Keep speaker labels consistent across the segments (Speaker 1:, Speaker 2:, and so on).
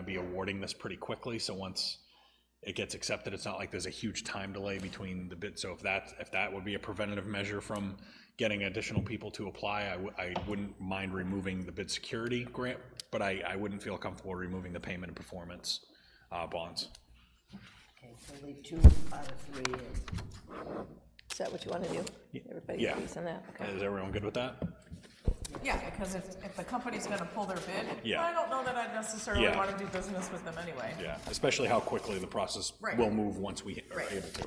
Speaker 1: be awarding this pretty quickly, so once it gets accepted, it's not like there's a huge time delay between the bid, so if that, if that would be a preventative measure from getting additional people to apply, I, wou- I wouldn't mind removing the bid security grant, but I, I wouldn't feel comfortable removing the payment and performance, uh, bonds.
Speaker 2: Okay, so leave two out of three in.
Speaker 3: Is that what you want to do? Everybody
Speaker 1: yeah.
Speaker 3: agrees on that? Okay.
Speaker 1: Is everyone good with that?
Speaker 4: Yeah, because if, if the company's gonna pull their bid,
Speaker 1: Yeah.
Speaker 4: I don't know that I necessarily
Speaker 1: Yeah.
Speaker 4: wanna do business with them anyway.
Speaker 1: Yeah, especially how quickly the process
Speaker 4: Right.
Speaker 1: will move once we are
Speaker 4: Right.
Speaker 1: able to.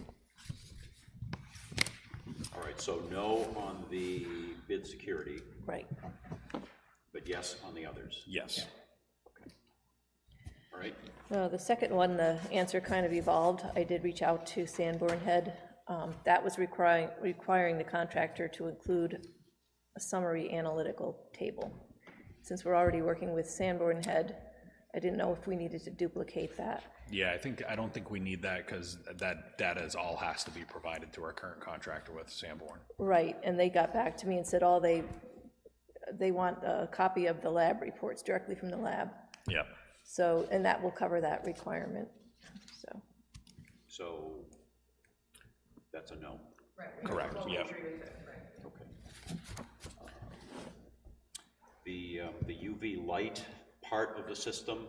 Speaker 5: All right, so no on the bid security,
Speaker 3: Right.
Speaker 5: but yes on the others,
Speaker 1: Yes.
Speaker 5: all right?
Speaker 3: No, the second one, the answer kind of evolved. I did reach out to Sanborn Head. Um, That was requiring, requiring the contractor to include a summary analytical table. Since we're already working with Sanborn Head, I didn't know if we needed to duplicate that.
Speaker 1: Yeah, I think, I don't think we need that because that data is all has to be provided to our current contractor with Sanborn.
Speaker 3: Right, and they got back to me and said, all they, they want a copy of the lab reports directly from the lab.
Speaker 1: Yep.
Speaker 3: So, and that will cover that requirement, so.
Speaker 5: So that's a no.
Speaker 1: Correct, yep.
Speaker 5: Okay. The, uh, the UV light part of the system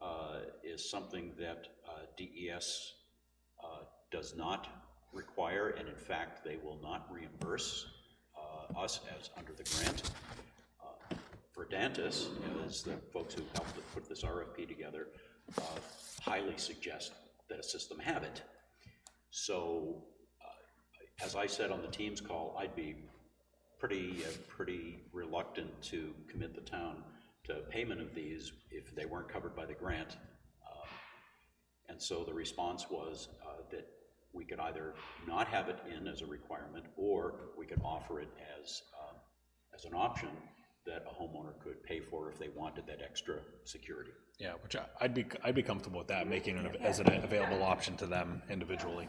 Speaker 5: uh, is something that uh, DES uh, does not require, and in fact, they will not reimburse uh, us as under the grant. Uh, Verdantis, as the folks who helped to put this RFP together, uh, highly suggest that a system have it. So uh, as I said on the Teams call, I'd be pretty, uh, pretty reluctant to commit the town to payment of these if they weren't covered by the grant. Uh, And so the response was uh, that we could either not have it in as a requirement, or we could offer it as, um, as an option that a homeowner could pay for if they wanted that extra security.
Speaker 1: Yeah, which I- I'd be, I'd be comfortable with that, making it as an available option to them individually.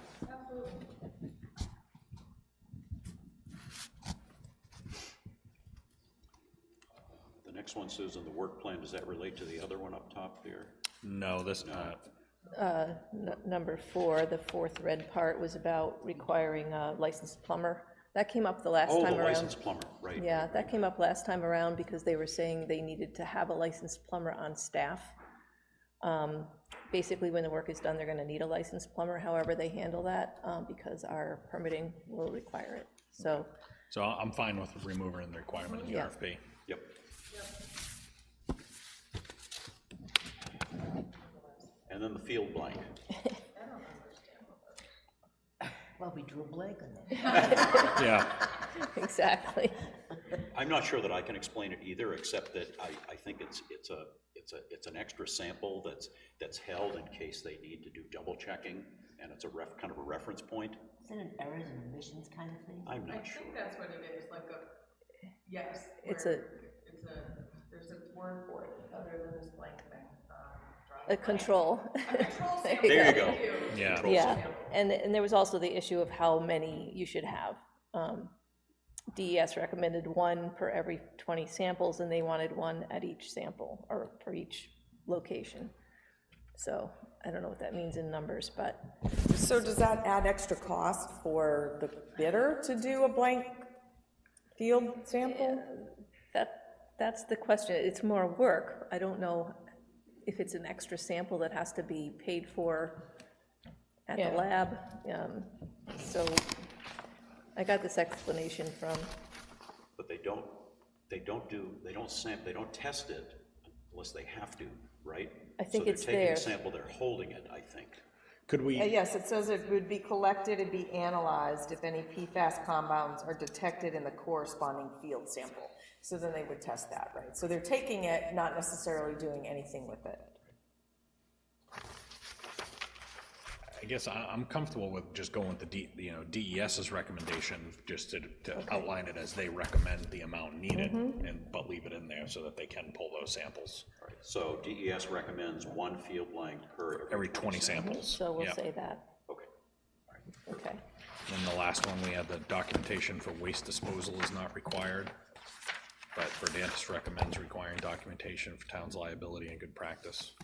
Speaker 5: The next one, Susan, the work plan, does that relate to the other one up top there?
Speaker 1: No, this, uh,
Speaker 3: N- Number four, the fourth red part was about requiring a licensed plumber. That came up the last
Speaker 5: Oh,
Speaker 3: time
Speaker 5: the
Speaker 3: around.
Speaker 5: licensed plumber, right.
Speaker 3: Yeah, that came up last time around because they were saying they needed to have a licensed plumber on staff. Um, Basically, when the work is done, they're gonna need a licensed plumber, however they handle that, um, because our permitting will require it. So,
Speaker 1: so I'm fine with removing the requirement in the
Speaker 3: Yeah.
Speaker 1: RFP.
Speaker 5: Yep. And then the field blank.
Speaker 2: Well, we drew a blank on that.
Speaker 1: Yeah,
Speaker 3: exactly.
Speaker 5: I'm not sure that I can explain it either, except that I, I think it's, it's a, it's a, it's an extra sample that's, that's held in case they need to do double checking, and it's a ref, kind of a reference point.
Speaker 2: Is it an errors and omissions kind of thing?
Speaker 5: I'm not sure.
Speaker 4: think that's what it is, like a, yes.
Speaker 3: It's where
Speaker 4: It's a, there's a word for it, other than this blank thing,
Speaker 3: A control. There you
Speaker 5: There you
Speaker 3: go.
Speaker 5: go.
Speaker 1: yeah.
Speaker 3: Yeah, and, and there was also the issue of how many you should have. Um, DES recommended one per every 20 samples, and they wanted one at each sample, or for each location. So I don't know what that means in numbers, but
Speaker 6: So does that add extra cost for the bidder to do a blank field sample?
Speaker 3: that, that's the question. It's more work. I don't know if it's an extra sample that has to be paid for at the
Speaker 6: Yeah.
Speaker 3: lab. Um, So I got this explanation from,
Speaker 5: But they don't, they don't do, they don't sam, they don't test it unless they have to, right?
Speaker 3: I think it's
Speaker 5: So they're
Speaker 3: there.
Speaker 5: taking a sample, they're holding it, I think.
Speaker 1: Could
Speaker 6: Uh,
Speaker 1: we,
Speaker 6: Yes, it says it would be collected and be analyzed if any PFAS compounds are detected in the corresponding field sample. So then they would test that, right? So they're taking it, not necessarily doing anything with it.
Speaker 1: I guess I, I'm comfortable with just going with the D, you know, DES's recommendation, just to, to outline it as they recommend the amount needed,
Speaker 3: Mm-hmm.
Speaker 1: and, but leave it in there so that they can pull those samples,
Speaker 5: All right, So DES recommends one field blank per
Speaker 1: every twenty samples.
Speaker 3: Mm-hmm. so we'll
Speaker 1: Yeah.
Speaker 3: say that.
Speaker 5: Okay.
Speaker 3: Okay,
Speaker 1: And the last one, we had the documentation for waste disposal is not required, but Verdantis recommends requiring documentation for town's liability and good practice.